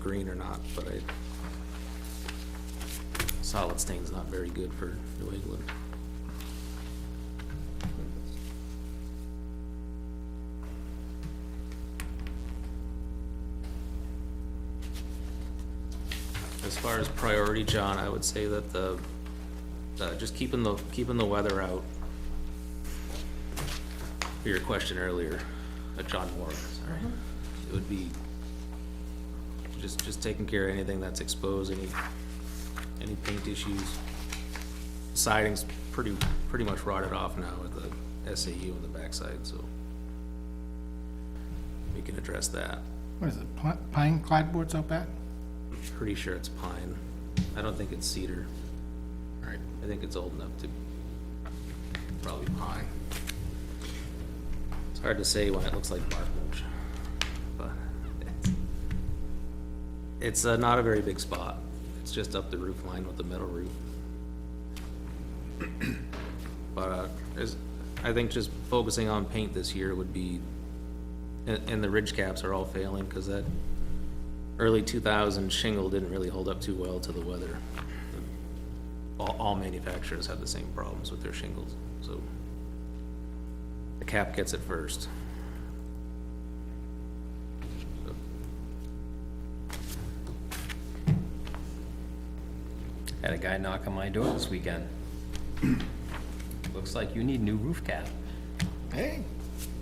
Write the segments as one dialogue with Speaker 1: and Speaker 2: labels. Speaker 1: green or not, but I, solid stain's not very good for New England. As far as priority, John, I would say that the, uh, just keeping the, keeping the weather out. For your question earlier, uh, John Moore, sorry, it would be just, just taking care of anything that's exposed, any, any paint issues. Siding's pretty, pretty much rotted off now with the SAU on the backside, so we can address that.
Speaker 2: What is it, pi- pine clapboards out back?
Speaker 1: Pretty sure it's pine. I don't think it's cedar.
Speaker 2: Right.
Speaker 1: I think it's old enough to probably pine. It's hard to say when it looks like bark mulch, but it's- it's uh, not a very big spot. It's just up the roof line with the metal roof. But uh, there's, I think just focusing on paint this year would be, and, and the ridge caps are all failing because that early 2000 shingle didn't really hold up too well to the weather all, all manufacturers have the same problems with their shingles, so the cap gets it first.
Speaker 3: Had a guy knock on my door this weekend. Looks like you need new roof cap.
Speaker 2: Hey,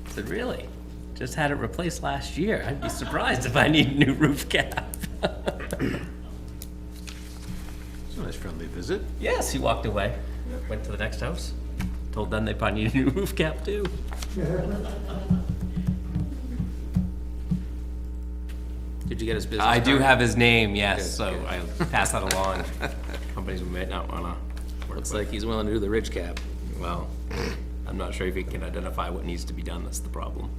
Speaker 3: I said, really? Just had it replaced last year. I'd be surprised if I need a new roof cap.
Speaker 4: It's a nice friendly visit.
Speaker 3: Yes, he walked away. Went to the next house. Told them they probably need a new roof cap too.
Speaker 1: Did you get his business
Speaker 3: I do
Speaker 1: card?
Speaker 3: have his name, yes,
Speaker 1: Good,
Speaker 3: so
Speaker 1: good.
Speaker 3: I'll pass that along. Companies we might not wanna work
Speaker 1: Looks
Speaker 3: with.
Speaker 1: like he's willing to do the ridge cap.
Speaker 3: Well, I'm not sure if he can identify what needs to be done, that's the problem.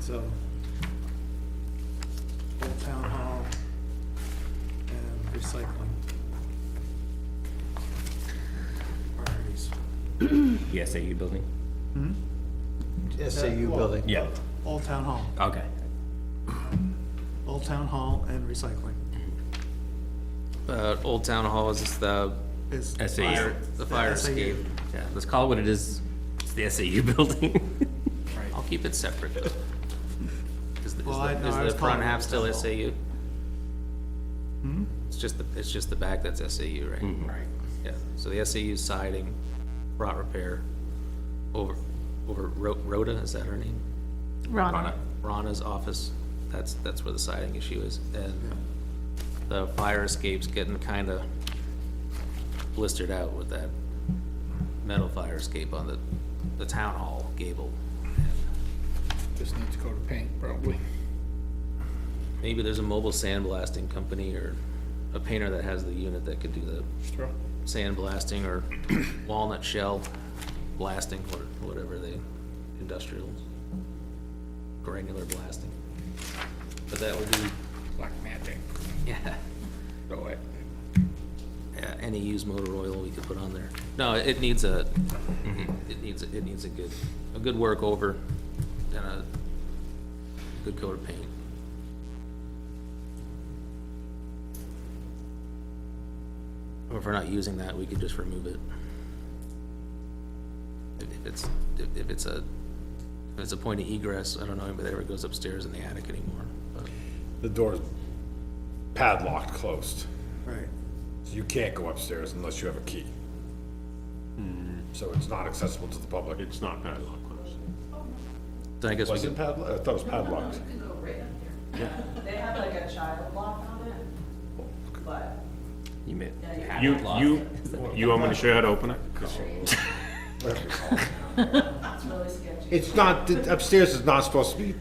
Speaker 5: So, Old Town Hall and recycling. Priorities.
Speaker 3: The SAU building?
Speaker 4: SAU building.
Speaker 3: Yeah.
Speaker 5: Old Town Hall,
Speaker 3: Okay.
Speaker 5: Old Town Hall and recycling
Speaker 1: Uh, Old Town Hall is just the,
Speaker 5: is.
Speaker 3: SAU.
Speaker 1: fire- the fire
Speaker 5: SAU.
Speaker 1: escape.
Speaker 3: Yeah, let's call it what it is. It's the SAU building.
Speaker 1: I'll keep it separate though. Is the, is
Speaker 5: Well, I-
Speaker 1: the-
Speaker 5: no, I
Speaker 1: is
Speaker 5: was
Speaker 1: the front
Speaker 5: calling it
Speaker 1: half still
Speaker 5: Town Hall.
Speaker 1: SAU?
Speaker 5: Hmm?
Speaker 1: It's just the, it's just the back that's SAU, right?
Speaker 5: Right.
Speaker 1: Yeah, so the SAU siding, rot repair, over, over Ro- Rhoda, is that her name?
Speaker 6: Rana.
Speaker 1: Rana's office, that's, that's where the siding issue is, and the fire escape's getting kinda blistered out with that metal fire escape on the, the town hall gable.
Speaker 2: just needs to go to paint, probably.
Speaker 1: Maybe there's a mobile sandblasting company or a painter that has the unit that could do the sandblasting or walnut shell blasting, or whatever they, industrial, granular blasting. But that would be,
Speaker 2: Black magic,
Speaker 1: yeah.
Speaker 2: throw it.
Speaker 1: Yeah, any used motor oil we could put on there. No, it needs a,
Speaker 2: Mm-hmm.
Speaker 1: it needs, it needs a good, a good work over and a good coat of paint. Or if we're not using that, we could just remove it. If if it's, if- if it's a, if it's a point of egress, I don't know anybody that ever goes upstairs in the attic anymore, but
Speaker 4: The door's padlocked, closed.
Speaker 5: Right,
Speaker 4: So you can't go upstairs unless you have a key. So it's not accessible to the public. It's not padlocked, closed.
Speaker 1: then I guess we
Speaker 4: Was
Speaker 1: could
Speaker 4: it padlocked? I thought it was padlocked.
Speaker 7: They have like a child lock on it, but
Speaker 3: You meant.
Speaker 8: Oh, You, you, you want me to show you how to open it?
Speaker 7: it's really sketchy.
Speaker 4: It's not, the upstairs is not supposed to be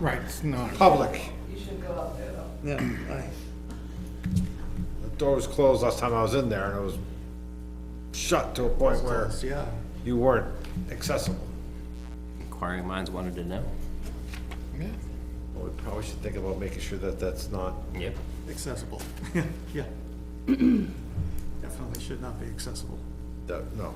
Speaker 2: Right, it's not.
Speaker 4: public.
Speaker 7: You should go up there though.
Speaker 5: yeah, I,
Speaker 4: The door was closed last time I was in there and it was shut to a point where
Speaker 5: close, yeah.
Speaker 4: you weren't accessible.
Speaker 3: Inquiring minds wanted to know.
Speaker 2: Yeah.
Speaker 4: Well, We probably should think about making sure that that's not
Speaker 3: Yep.
Speaker 5: accessible. Yeah. Definitely should not be accessible.
Speaker 4: That, no,